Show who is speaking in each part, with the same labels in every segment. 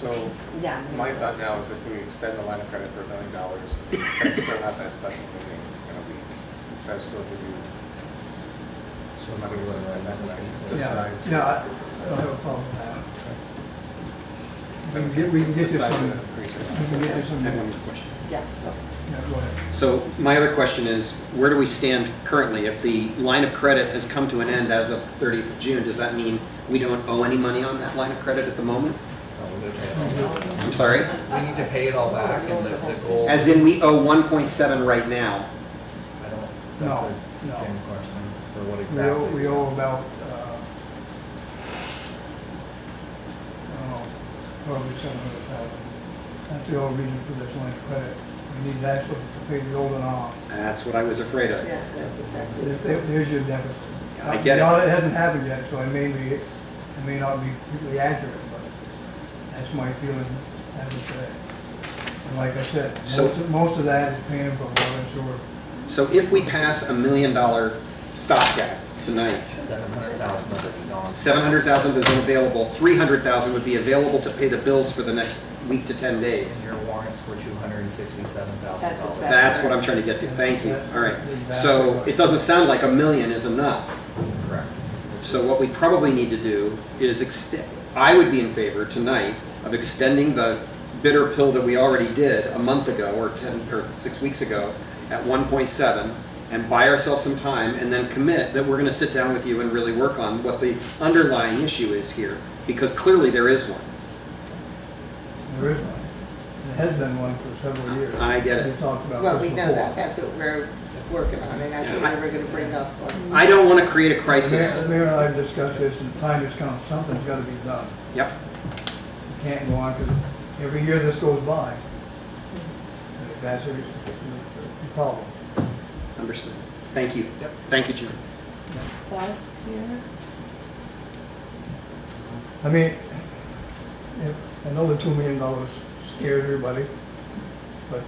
Speaker 1: So
Speaker 2: Yeah.
Speaker 1: my thought now is if we extend the line of credit for a million dollars, that's still not that special meeting in a week. That still give you
Speaker 3: So
Speaker 1: some money to spend that way.
Speaker 4: Yeah,
Speaker 1: Decide to-
Speaker 4: yeah, I I don't have a problem with that. We can get, we can get this
Speaker 1: decide to
Speaker 4: one,
Speaker 1: increase or
Speaker 4: we
Speaker 1: not.
Speaker 4: can get this one,
Speaker 5: I
Speaker 4: yeah,
Speaker 5: have one question.
Speaker 2: Yeah.
Speaker 4: go ahead.
Speaker 5: So my other question is, where do we stand currently? If the line of credit has come to an end as of 30th of June, does that mean we don't owe any money on that line of credit at the moment? I'm sorry?
Speaker 3: We need to pay it all back and the, the goal.
Speaker 5: As in, we owe 1.7 right now.
Speaker 3: I don't, that's
Speaker 4: No,
Speaker 3: a
Speaker 4: no.
Speaker 3: Jim question, for what
Speaker 4: We owe, we
Speaker 3: exactly?
Speaker 4: owe about, uh, I don't know, oh, probably seven hundred thousand. uh, That's the old reason for this line of credit. We need that to pay the old one off.
Speaker 5: That's what I was afraid of.
Speaker 2: Yeah, that's exactly.
Speaker 4: There- there- There's your deficit.
Speaker 5: I get it.
Speaker 4: No, it hasn't happened yet, so I may be, I may not be completely accurate, but that's my feeling as of today. And like I said,
Speaker 5: So-
Speaker 4: most, most of that is paying for water and sewer.
Speaker 5: So if we pass a million dollar stopgap tonight,
Speaker 3: Seven hundred thousand of it's gone.
Speaker 5: 700,000 is unavailable, 300,000 would be available to pay the bills for the next week to 10
Speaker 3: And
Speaker 5: days.
Speaker 3: your warrants were two hundred and sixty-seven thousand
Speaker 2: That's
Speaker 3: dollars.
Speaker 2: exact-
Speaker 5: That's what I'm trying to get to, thank you. All right, so it doesn't sound like a million is enough.
Speaker 3: Correct.
Speaker 5: So what we probably need to do is extend, I would be in favor tonight of extending the bitter pill that we already did a month ago or 10, or six weeks ago at 1.7 and buy ourselves some time and then commit that we're going to sit down with you and really work on what the underlying issue is here, because clearly there is one.
Speaker 4: There is one. There has been one for several years.
Speaker 5: I get it.
Speaker 4: We talked about
Speaker 2: Well, we
Speaker 4: this
Speaker 2: know
Speaker 4: before.
Speaker 2: that, that's what we're working on, and that's what we we're gonna bring up. on-
Speaker 5: I don't want to create a
Speaker 4: The mayor- The
Speaker 5: crisis.
Speaker 4: mayor and I have discussed this, and the time has come, something's gotta be done.
Speaker 5: Yep,
Speaker 4: It can't go on, because every year this goes by. And That's the reason for the problem.
Speaker 5: understood. Thank you.
Speaker 3: Yep.
Speaker 5: Thank you, Jim.
Speaker 2: Thoughts here?
Speaker 4: I mean, if- I know the two million dollars scared everybody, but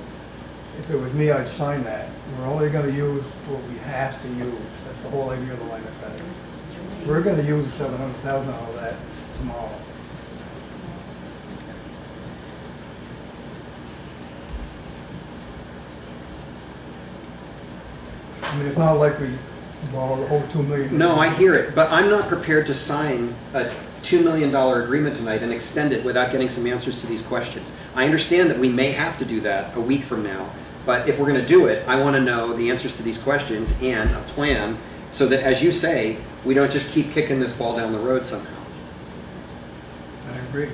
Speaker 4: if it was me, I'd sign that. We're only gonna use what we have to use. That's the whole idea of the line of credit. We're gonna use seven hundred thousand out of that tomorrow. I mean, it's not like we borrowed the whole two million.
Speaker 5: No, I hear it, but I'm not prepared to sign a $2 million agreement tonight and extend it without getting some answers to these questions. I understand that we may have to do that a week from now, but if we're going to do it, I want to know the answers to these questions and a plan so that, as you say, we don't just keep kicking this ball down the road somehow.
Speaker 4: I agree.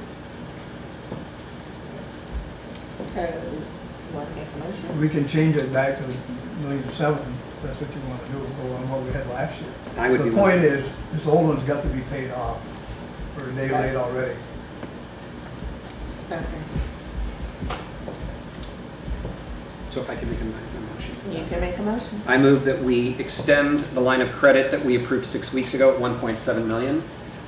Speaker 2: So, want to make a motion?
Speaker 4: We can change it back to million seven, if that's what you want to do, go on what we had last year.
Speaker 5: I would be.
Speaker 4: The point is, this old one's got to be paid off, or they late already.
Speaker 2: Okay,
Speaker 5: So if I could make a motion.
Speaker 2: you can make a motion.
Speaker 5: I move that we extend the line of credit that we approved six weeks ago at 1.7 million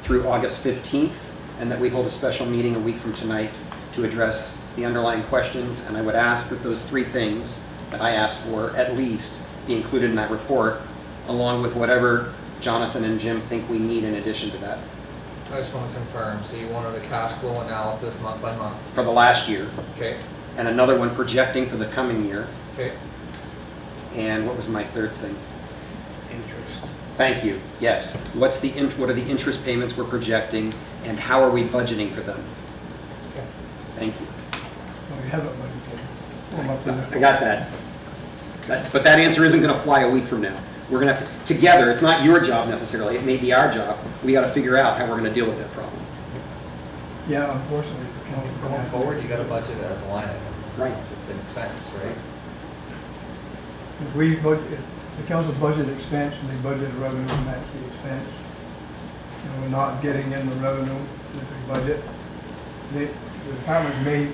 Speaker 5: through August 15th, and that we hold a special meeting a week from tonight to address the underlying questions. And I would ask that those three things that I asked for at least be included in that report, along with whatever Jonathan and Jim think we need in addition to that
Speaker 3: I just wanna confirm, so you wanted a cash flow analysis month by month,
Speaker 5: for the last year,
Speaker 3: okay,
Speaker 5: and another one projecting for the coming year.
Speaker 3: okay?
Speaker 5: And what was my third thing?
Speaker 1: Interest.
Speaker 5: Thank you, yes. What's the, int- what are the interest payments we're projecting, and how are we budgeting for them?
Speaker 3: Okay.
Speaker 5: Thank you.
Speaker 4: Well, We haven't budgeted.
Speaker 5: I got that. That- But that answer isn't going to fly a week from now. We're going to have to, together, it's not your job necessarily, it may be our job. We got to figure out how we're going to deal with that problem.
Speaker 4: Yeah, unfortunately. we can't-
Speaker 3: Going forward, you gotta budget it as a line item.
Speaker 5: Right.
Speaker 3: It's an expense, right?
Speaker 4: If we budget, if the council budget expense and they budget revenue match the expense, and we're not getting in the revenue that we budget, the the department may,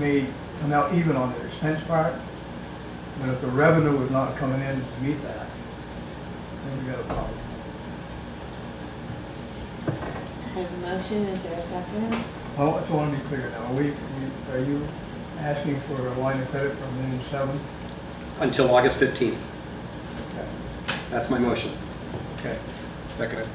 Speaker 4: may come out even on the expense part, but if the revenue is not coming in to meet that, then we got a problem.
Speaker 6: I have a motion, is there a second?
Speaker 4: Well, I just want to be clear now, we, we- are you asking for a line of credit from million seven?
Speaker 5: Until August 15th. That's my motion.
Speaker 4: Okay.
Speaker 1: Second.